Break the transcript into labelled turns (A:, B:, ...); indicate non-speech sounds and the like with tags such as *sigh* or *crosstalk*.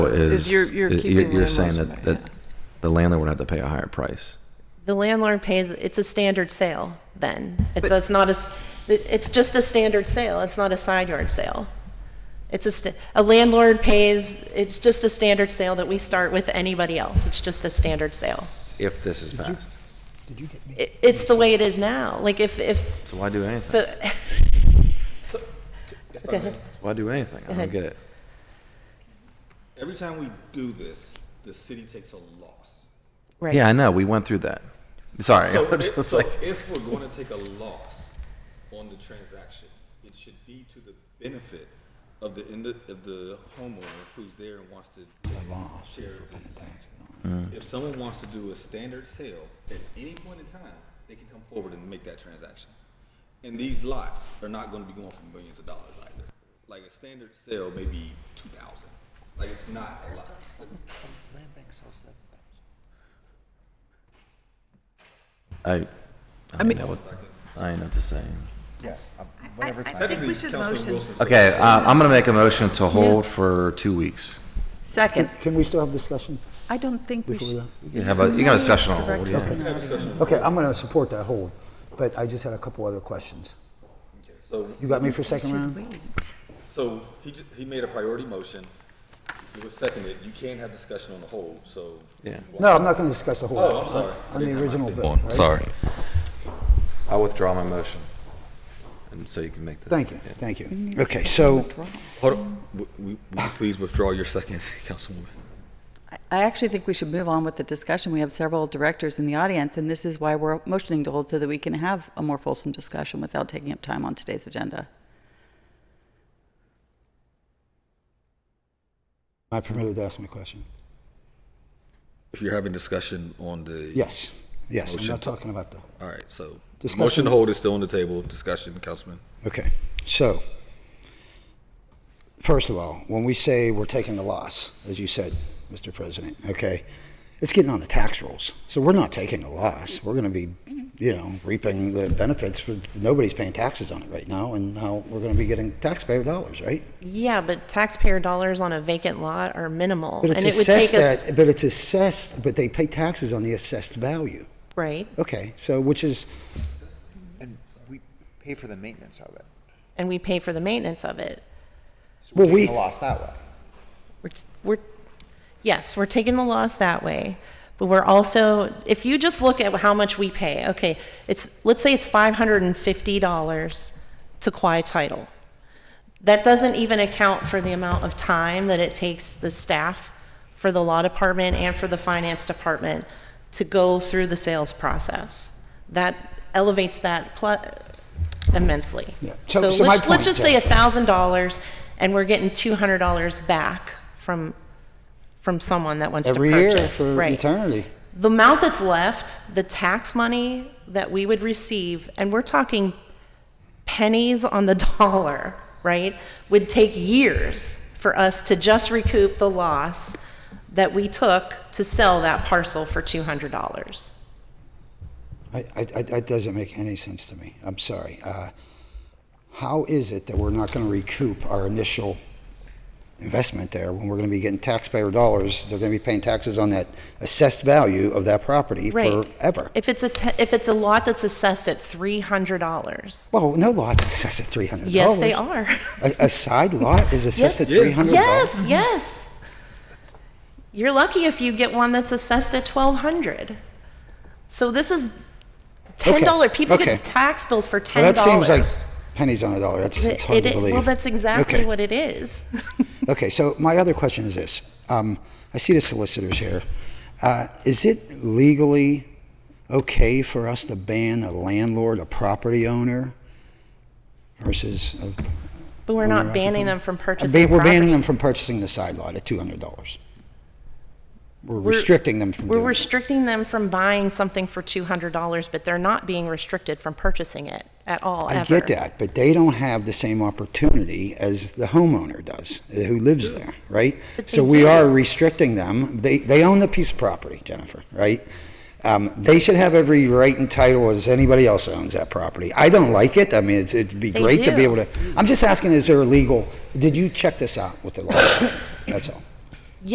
A: is,
B: Is you're- you're
A: you're-
B: keeping
A: you're
B: landlords
A: saying that,
B: back,
A: that
B: yeah.
A: the landlord would have to pay a higher price.
C: The landlord pays, it's a standard sale then. It's, it's not a, s- it- it's just a standard sale, it's not a side yard sale. It's a, st- a landlord pays, it's just a standard sale that we start with anybody else, it's just a standard sale.
A: If this is passed.
C: It, it's the way it is now, like if, if,
A: So why do anything?
C: so. *laughs* Go ahead.
A: Why do anything? I don't
C: ahead.
A: get it.
D: Every time we do this, the city takes a loss.
C: Right.
A: Yeah, I know, we went through that. Sorry, *laughs*
D: So,
A: I'm
D: if,
A: just
D: so
A: like,
D: if we're going to take a loss on the transaction, it should be to the benefit of the ind- of the homeowner who's there and wants to share this.
E: Mm.
D: If someone wants to do a standard sale at any point in time, they can come forward and make that transaction. And these lots are not going to be going for millions of dollars either. Like a standard sale, maybe two thousand. Like it's not a lot.
E: Land bank sells seven thousand.
A: I, I mean, I ain't know what to say.
E: Yeah, uh, whatever it's.
F: I think we should
D: Councilman
F: motion.
D: Wilson said-
A: Okay, uh, I'm gonna make a motion to hold for two weeks.
F: Second.
E: Can we still have discussion?
F: I don't think we should.
A: You have a, you got a session on hold, yeah.
E: Okay, I'm going to support that hold, but I just had a couple other questions.
D: Okay, So
E: You got me for second round?
F: Wait.
D: So he, ju- he made a priority motion, it was seconded, you can't have discussion on the whole, so.
A: Yeah.
E: No, I'm not going to discuss the hold.
D: Oh, I'm sorry.
E: On the original bill, right?
D: Sorry.
A: I withdraw my motion. And so you can make the.
E: Thank you, thank you. Okay, so,
D: Hold on, W- w- will you please withdraw your seconds, *laughs* Councilwoman?
F: I I actually think we should move on with the discussion. We have several directors in the audience, and this is why we're motioning to hold so that we can have a more fulsome discussion without taking up time on today's agenda.
E: am I permitted to ask my question?
D: If you're having discussion on the.
E: Yes, yes, I'm
D: Motion.
E: not talking about the,
D: All right, so, the
E: Discussion.
D: motion to hold is still on the table, discussion, Councilman.
E: okay, so, first of all, when we say we're taking a loss, as you said, Mr. President, okay, it's getting on the tax rolls. So we're not taking a loss, we're going to be, you know, reaping the benefits for, nobody's paying taxes on it right now, and now we're going to be getting taxpayer dollars, right?
C: Yeah, but taxpayer dollars on a vacant lot are minimal.
E: But
C: and
E: it's
C: it would take
E: assessed
C: us
E: at, but it's assessed, but they pay taxes on the assessed value.
C: Right,
E: Okay, so which is,
G: And we pay for the maintenance of it.
C: and we pay for the maintenance of it.
G: So we're
E: Well, we-
G: taking a loss that way.
C: We're, t- we're, yes, we're taking the loss that way, but we're also, if you just look at how much we pay, okay, it's, let's say it's five hundred and fifty dollars to quiet title. That doesn't even account for the amount of time that it takes the staff for the law department and for the finance department to go through the sales process. That elevates that plu- immensely.
E: Yeah.
C: So
E: So- so my
C: let's,
E: point,
C: let's just say a
E: Jeff-
C: thousand dollars and we're getting two hundred dollars back from, from someone that wants to
E: Every year
C: purchase.
E: for
C: Right.
E: eternity.
C: The amount that's left, the tax money that we would receive, and we're talking pennies on the *laughs* dollar, right, would take years for us to just recoup the loss that we took to sell that parcel for two hundred dollars.
E: I, I, I- that doesn't make any sense to me. I'm sorry. Uh, How is it that we're not going to recoup our initial investment there when we're going to be getting taxpayer dollars? They're going to be paying taxes on that assessed value of that property
C: Right.
E: forever.
C: If it's a, te- if it's a lot that's assessed at three hundred dollars,
E: Well, no lot's assessed at three hundred dollars.
C: yes, they are.
E: A, a side lot is assessed at
D: Yes. Yeah.
E: three hundred
C: Yes,
E: dollars?
C: yes. You're lucky if you get one that's assessed at twelve hundred. So this is ten dollar,
E: Okay,
C: people
E: okay.
C: get tax bills for
E: Well,
C: ten
E: that seems
C: dollars.
E: like pennies on a dollar. That's, it's hard to believe.
C: Well, that's exactly
E: Okay.
C: what it is. *laughs*
E: Okay, so my other question is this. Um, I see the solicitors here. Uh, is it legally okay for us to ban a landlord, a property owner versus? a-
C: But we're not
E: Owner
C: banning
E: occupied.
C: them from
E: Ba-
C: purchasing
E: We're banning
C: property.
E: them from purchasing the side lot at two hundred dollars. We're
C: We're-
E: restricting them from
C: We're
E: doing it.
C: restricting them from buying something for two hundred dollars, but they're not being restricted from purchasing it at all,
E: I
C: ever.
E: get that, but they don't have the same opportunity as the homeowner does, uh, who lives there, right?
C: But
E: So
C: they
E: we
C: do.
E: are restricting them. They, they own the piece of property, Jennifer, right? Um, they should have every right and title as anybody else owns that property. I don't like it. I mean, it's, it'd be
C: They
E: great to
C: do.
E: be able to, I'm just asking, is there a legal, did you check this out with the law? That's all.